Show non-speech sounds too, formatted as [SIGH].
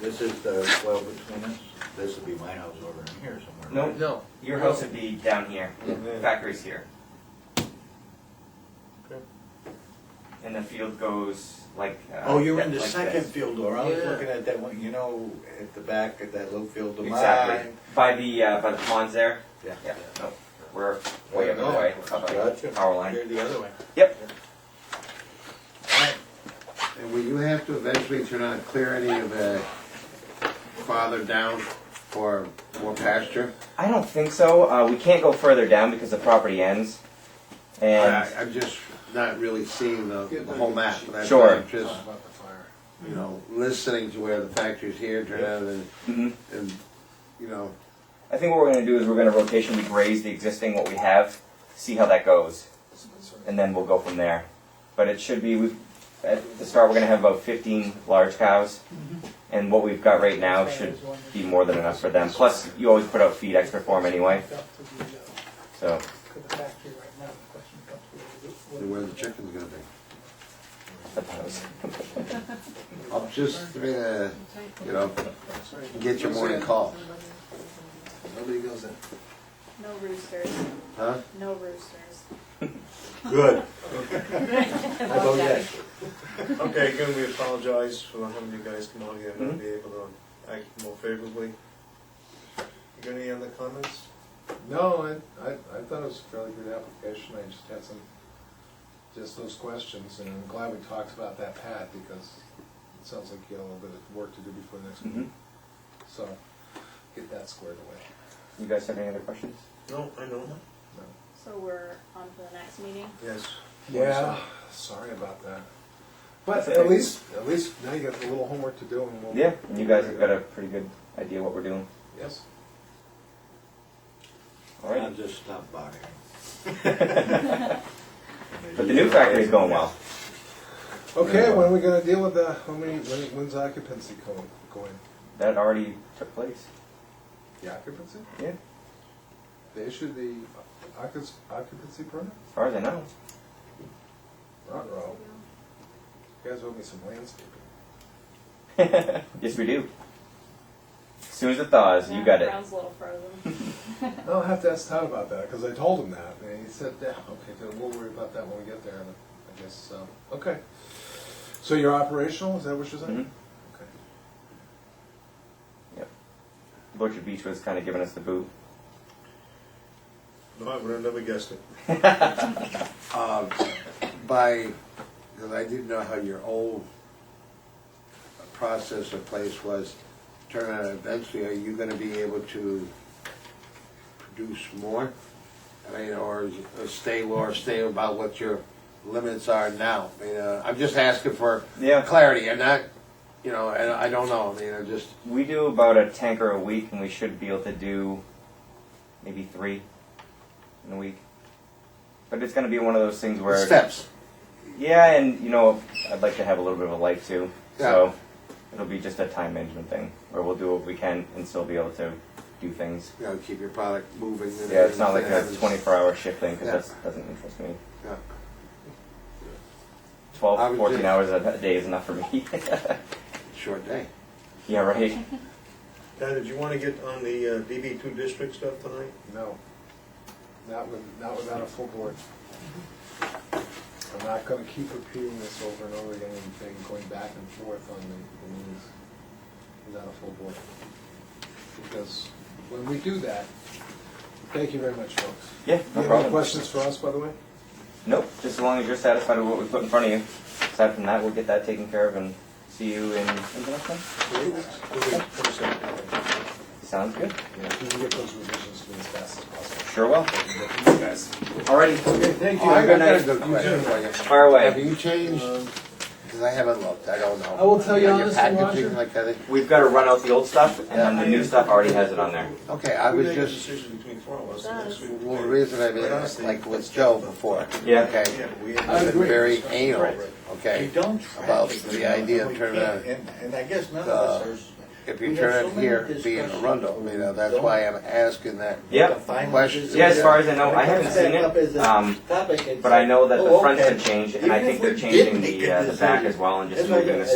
This is the well between us, this would be my house over in here somewhere. Nope. right? No. Your house would be down here. Mm-hmm. Factory's here. Okay. And the field goes like. Uh, Oh, you're in the like second this. field door, I was Yeah. looking at that one, you know, at the back of that low field of mine. Exactly. By the uh, by the ponds there. Yeah. Yeah. No, we're way up the Yeah. way. We're up by Gotcha. the power line. You're the other way. Yep. And will you have to eventually turn on, clear any of the farther down for more pasture? I don't think so. Uh, we can't go further down because the property ends. And I- I'm just not really seeing the, the whole map. but I'm Sure. Just, you know, listening to where the factory's here, turn out and, mhm. and, you know, I think what we're going to do is we're going to rotationally graze the existing what we have, see how that goes, and then we'll go from there. But it should be we at the start we're going to have about 15 large cows, and what we've got right now should be more than enough for them. Plus, you always put out feed extra for them anyway, so where the chicken's gonna be. I suppose. I'll just, uh, you know, get your morning call, Nobody goes in. No roosters, huh? no roosters. Good. [LAUGHS] Oh, I I vote yes. Okay, again, we apologize for having you guys come out here and not be Mm-hmm. able to act more favorably. You got any other comments? No, I, I, I thought it was a fairly good application, I just had some, just those questions, and I'm glad we talked about that pad, because it sounds like you have a little bit of work to do before the next Mhm. meeting. So, get that squared away. You guys have any other questions? Mm-hmm. No, I don't. So we're on to the next meeting? Yes. Yeah, sorry about that. That's But okay. at least, at least now you got a little homework to do, and we'll. Yeah, and you guys have got a pretty good idea what we're doing. Yes. All I'll right. just stop bothering. But the new factory's going well. Okay, when are we gonna deal with the, how many, when, when's occupancy going, going? That already took place. The occupancy? Yeah, They issued the occup- occupancy permit? as far as I know. [LAUGHS] Rot Oh. row. You guys owe me some landscaping. yes, we do. As soon as it thaws, you got it. Brown's a little frozen. [LAUGHS] [LAUGHS] I'll have to ask Todd about that, because I told him that, and he said, yeah, okay, then we'll worry about that when we get there, and I guess, so, okay. So you're operational, is that what you're Mhm. saying? Okay. Butcher Beach was kind of giving us the boot. No, I would have never guessed it. Um, by, because I didn't know how your old process or place was, turn out eventually, are you gonna be able to produce more? I mean, or is- or stay, or stay about what your limits are now? I mean, uh, I'm just asking for Yeah, clarity, I'm not, you know, and I don't know, I mean, I just, we do about a tanker a week, and we should be able to do maybe three in a week. But it's going to be one of those things where steps. Yeah, and you know, I'd like to have a little bit of a life too. So it'll be just a time management thing where we'll do what we can and still be able to do things. You know, keep your product moving. and Yeah, it's not like everything a happens. 24 hour shift thing Yeah. because that doesn't interest me. Yeah. I 12, would 14 just- hours a a day is enough for me. [LAUGHS] Short day. yeah, right. [LAUGHS] Dad, did you want to get on the uh, DB two district stuff tonight? No. Not with, not without a full board. I'm not gonna keep repeating this over and over again, and then going back and forth on the, the meetings without a full board. Because when we do that, thank you very much, folks. Yeah, You no have any problem. questions for us, by the way? Nope, just as long as you're satisfied with what we put in front of you. Aside from that, we'll get that taken care of and see you in. when's the next one? Sounds good. Yeah. You can get those revisions to me as fast as possible. Sure will. Alrighty, Okay, thank Oh, I you. got a good question for you. fire Have away. you changed? Because I haven't looked, I don't know. I will tell you Are honestly, packaging Roger. Like, are they- We've got to run out the old stuff, and then the new stuff already has it on there. okay, I We was make a just, decision between four of us and next week. well, the reason I mean, But honestly, like with Joe before. Yeah. Okay, Yeah, we. I've been agree. very anal, You okay? don't track About it, the you know, idea of we turning can't, it- And, and I guess none of us Uh, are. If We you have turn so it many here, being discussions. Arundel, you know, that's why I'm asking that. Yep. Final Question. decision. Yeah, as far as I know, I haven't Set seen up as it, a um, topic and but I know that say, "Oh, the front's okay." been changed, and Even I if think we they're changing didn't the, get uh, this the back in, as well and just it's like moving a- the